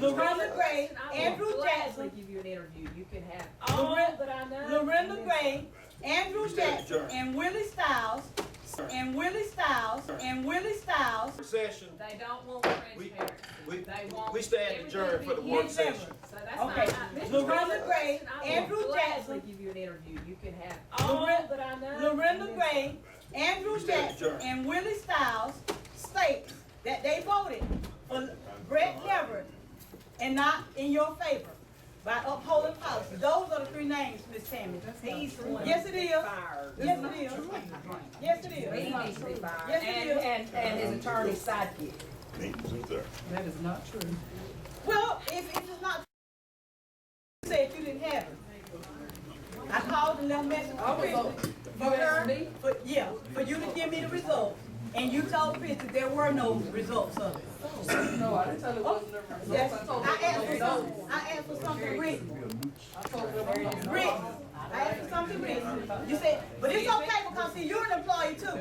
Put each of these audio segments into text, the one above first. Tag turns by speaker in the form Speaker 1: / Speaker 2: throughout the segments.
Speaker 1: Loretta Gray,
Speaker 2: I will
Speaker 1: Andrew
Speaker 2: gladly
Speaker 1: Jackson,
Speaker 2: Give you an interview, you can have all
Speaker 1: Loretta-
Speaker 2: that I know.
Speaker 1: Loretta
Speaker 2: and then
Speaker 1: Gray, Andrew
Speaker 3: Mr.
Speaker 1: Jackson,
Speaker 3: Adjourn.
Speaker 1: and Willie Styles, and Willie Styles, and Willie Styles.
Speaker 3: Session,
Speaker 2: some. They don't want transparency.
Speaker 3: we,
Speaker 2: They want.
Speaker 3: we stand
Speaker 2: everything
Speaker 3: adjourned
Speaker 2: to
Speaker 3: for the
Speaker 2: be
Speaker 3: work
Speaker 2: hidden.
Speaker 3: session.
Speaker 2: So that's not.
Speaker 1: Okay.
Speaker 2: I- Mr.
Speaker 1: Loretta Gray,
Speaker 2: Jackson, I will
Speaker 1: Andrew
Speaker 2: gladly
Speaker 1: Jackson,
Speaker 2: Give you an interview, you can have all
Speaker 1: Loretta-
Speaker 2: that I know. and
Speaker 1: Loretta
Speaker 2: then
Speaker 1: Gray, Andrew
Speaker 3: Mr.
Speaker 1: Jackson,
Speaker 3: Adjourn.
Speaker 1: and Willie Styles state that they voted for Brett Everett and not in your favor by upholding policy. Those are the three names, Miss Tammy.
Speaker 2: He's the one.
Speaker 1: Yes, it is.
Speaker 2: Fired.
Speaker 1: Yes, it is. Yes, it
Speaker 2: He
Speaker 1: is.
Speaker 2: needs to be fired.
Speaker 1: Yes, it is.
Speaker 4: and, and his attorney's sidekick.
Speaker 2: That is not true.
Speaker 1: Well, if if it's not, you said you didn't have it. I called and left message for Christie, for her, for, yeah, for you to give me the results. And you told Christie there were no results of it.
Speaker 5: No, I didn't tell her what the
Speaker 1: Yes,
Speaker 5: results. I told
Speaker 1: I asked for
Speaker 5: her what
Speaker 1: something, I asked for something written,
Speaker 5: I told her what the
Speaker 1: written. I asked for something written. You said, but it's okay because see, you're an employee too.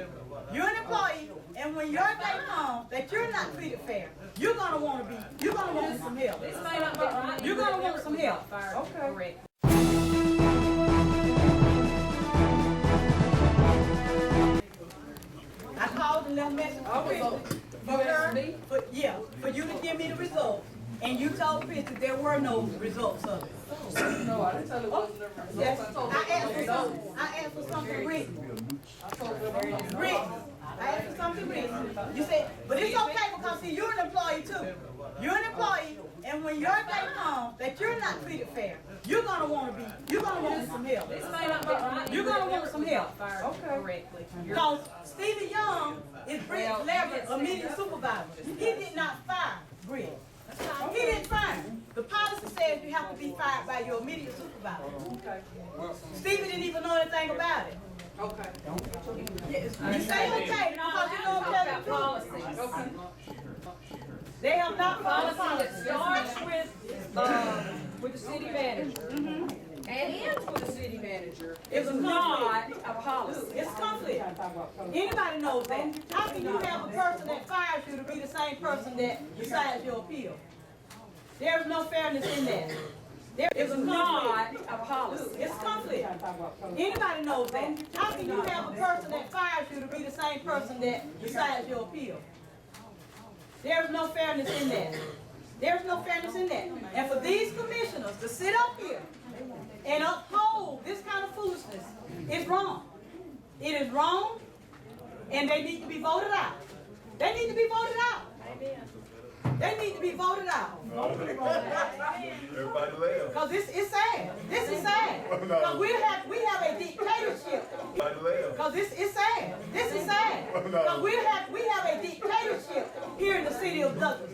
Speaker 1: You're an employee, and when your day comes, that you're not treated fair, you're gonna wanna be, you're gonna want some help.
Speaker 2: This may not be right.
Speaker 1: You're gonna want some help.
Speaker 2: Fired,
Speaker 1: Okay.
Speaker 2: correct.
Speaker 1: I called and left message for Christie, for her, for, yeah, for you to give me the results. And you told Christie there were no results of it.
Speaker 5: No, I didn't tell her what the
Speaker 1: Yes,
Speaker 5: results. I told
Speaker 1: I
Speaker 5: her
Speaker 1: asked
Speaker 5: what the
Speaker 1: for
Speaker 5: results.
Speaker 1: something, I asked for something written,
Speaker 5: I told her what the results.
Speaker 1: written. I asked for something written. You said, but it's okay because see, you're an employee too. You're an employee, and when your day comes, that you're not treated fair, you're gonna wanna be, you're gonna want some help.
Speaker 2: This may not be right.
Speaker 1: You're gonna uh, want some help.
Speaker 2: Fired
Speaker 1: Okay.
Speaker 2: correctly.
Speaker 1: Because Stevie Young is Britt's Leverett, immediate supervisor. He did not fire Britt. He didn't fire him. The policy says you have to be fired by your immediate supervisor. Stevie didn't even know anything about it.
Speaker 5: Okay,
Speaker 1: Yes, You say okay because you don't tell the truth.
Speaker 2: Policy.
Speaker 5: okay.
Speaker 1: They have not followed
Speaker 2: Policy
Speaker 1: policy.
Speaker 2: that starts with, uh, with the city manager and ends with the city manager.
Speaker 1: It's
Speaker 2: It's
Speaker 1: a
Speaker 2: not a policy.
Speaker 1: It's conflict. Anybody knows that. How can you have a person that fires you to be the same person that decides your appeal? There is no fairness in that. There is
Speaker 2: It's
Speaker 1: a
Speaker 2: not
Speaker 1: conflict.
Speaker 2: a policy.
Speaker 1: It's conflict. Anybody knows that. How can you have a person that fires you to be the same person that decides your appeal? There is no fairness in that. There is no fairness in that. And for these commissioners to sit up here and uphold this kind of foolishness is wrong. It is wrong, and they need to be voted out. They need to be voted out. They need to be voted out.
Speaker 6: Everybody laugh.
Speaker 1: Cause this is sad. This is sad. Cause we have, we have a dictatorship.
Speaker 6: Everybody laugh.
Speaker 1: Cause this is sad. This is sad. Cause we have, we have a dictatorship here in the city of Douglas.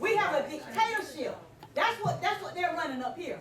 Speaker 1: We have a dictatorship. That's what, that's what they're running up here.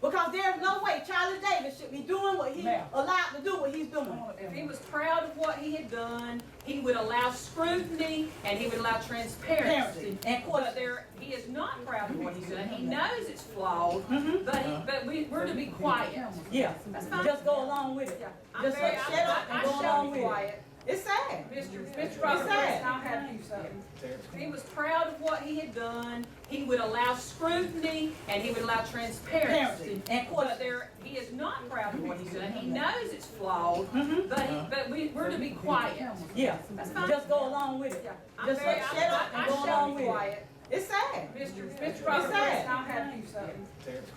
Speaker 1: Because there's no way Charlie Davis should be doing what he allowed to do what he's doing.
Speaker 2: If he was proud of what he had done, he would allow scrutiny and he would allow transparency.
Speaker 1: Transparency and
Speaker 2: But
Speaker 1: question.
Speaker 2: there, he is not proud of what he's done. He knows it's flawed, but he, but we, we're to be quiet.
Speaker 1: Mm-hmm. Yeah,
Speaker 2: That's fine.
Speaker 1: just go along with it.
Speaker 2: Yeah, I'm
Speaker 1: Just
Speaker 2: very-
Speaker 1: shut
Speaker 2: I-
Speaker 1: up and
Speaker 2: I- I
Speaker 1: go
Speaker 2: shall
Speaker 1: along
Speaker 2: be
Speaker 1: with it.
Speaker 2: quiet.
Speaker 1: It's sad.
Speaker 2: Mr. Mr. Robert
Speaker 1: sad.
Speaker 2: Preston, I'll have you something. If he was proud of what he had done, he would allow scrutiny and he would allow transparency.
Speaker 1: Transparency and
Speaker 2: But
Speaker 1: question.
Speaker 2: there, he is not proud of what he's done. He knows it's flawed, but he, but we, we're to be quiet.
Speaker 1: Mm-hmm. Yeah,
Speaker 2: That's fine.
Speaker 1: just go along with it.
Speaker 2: Yeah, I'm
Speaker 1: Just
Speaker 2: very-
Speaker 1: shut up
Speaker 2: I- I-
Speaker 1: and go
Speaker 2: I shall
Speaker 1: along
Speaker 2: be
Speaker 1: with it.
Speaker 2: quiet.
Speaker 1: It's sad.
Speaker 2: Mr. Mr. Robert
Speaker 1: sad.
Speaker 2: Preston, I'll have you something.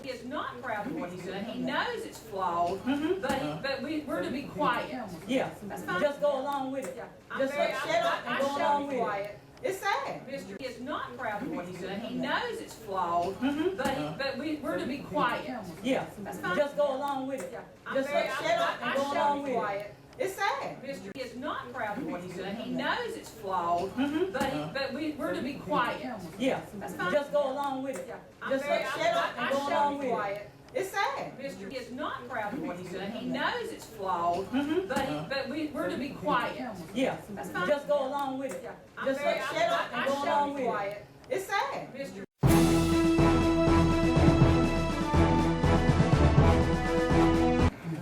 Speaker 2: He is not proud of what he's done. He knows it's flawed, but he, but we, we're to be quiet.
Speaker 1: Yeah,
Speaker 2: That's fine.
Speaker 1: just go along with it.
Speaker 2: Yeah, I'm
Speaker 1: Just
Speaker 2: very-
Speaker 1: shut up
Speaker 2: I- I-
Speaker 1: and
Speaker 2: I shall
Speaker 1: go
Speaker 2: be
Speaker 1: along with it.
Speaker 2: quiet.
Speaker 1: It's sad.
Speaker 2: Mr. He is not proud of what he's done. He knows it's flawed, but he,
Speaker 1: Uh-huh.
Speaker 2: but we, we're to be quiet.
Speaker 1: Yeah,
Speaker 2: That's fine.
Speaker 1: just go along with it.
Speaker 2: Yeah, I'm
Speaker 1: Just
Speaker 2: very-
Speaker 1: shut up
Speaker 2: I- I-
Speaker 1: and go
Speaker 2: I shall
Speaker 1: along
Speaker 2: be
Speaker 1: with it.
Speaker 2: quiet.
Speaker 1: It's sad.
Speaker 2: Mr. He is not proud of what he's done. He knows it's flawed, but he,
Speaker 1: Uh-huh.
Speaker 2: but we, we're to be quiet.
Speaker 1: Yeah,
Speaker 2: That's fine.
Speaker 1: just go along with it.
Speaker 2: Yeah, I'm
Speaker 1: Just
Speaker 2: very-
Speaker 1: shut
Speaker 2: I-
Speaker 1: up
Speaker 2: I- I
Speaker 1: and go
Speaker 2: shall
Speaker 1: along
Speaker 2: be
Speaker 1: with it.
Speaker 2: quiet.
Speaker 1: It's sad.
Speaker 2: Mr. He is not proud of what he's done. He
Speaker 1: Uh-huh.
Speaker 2: knows it's flawed, but he, but we, we're to be quiet.
Speaker 1: Mm-hmm. Yeah,
Speaker 2: That's fine.
Speaker 1: just go along with it.
Speaker 2: Yeah, I'm
Speaker 1: Just
Speaker 2: very-
Speaker 1: shut up
Speaker 2: I- I
Speaker 1: and go
Speaker 2: shall
Speaker 1: along
Speaker 2: be
Speaker 1: with it.
Speaker 2: quiet.
Speaker 1: It's sad.
Speaker 2: Mr.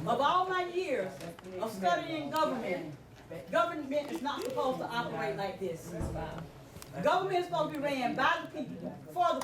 Speaker 1: Of all my years of studying government, government is not supposed to operate like this. Government is supposed to be ran by the people, for the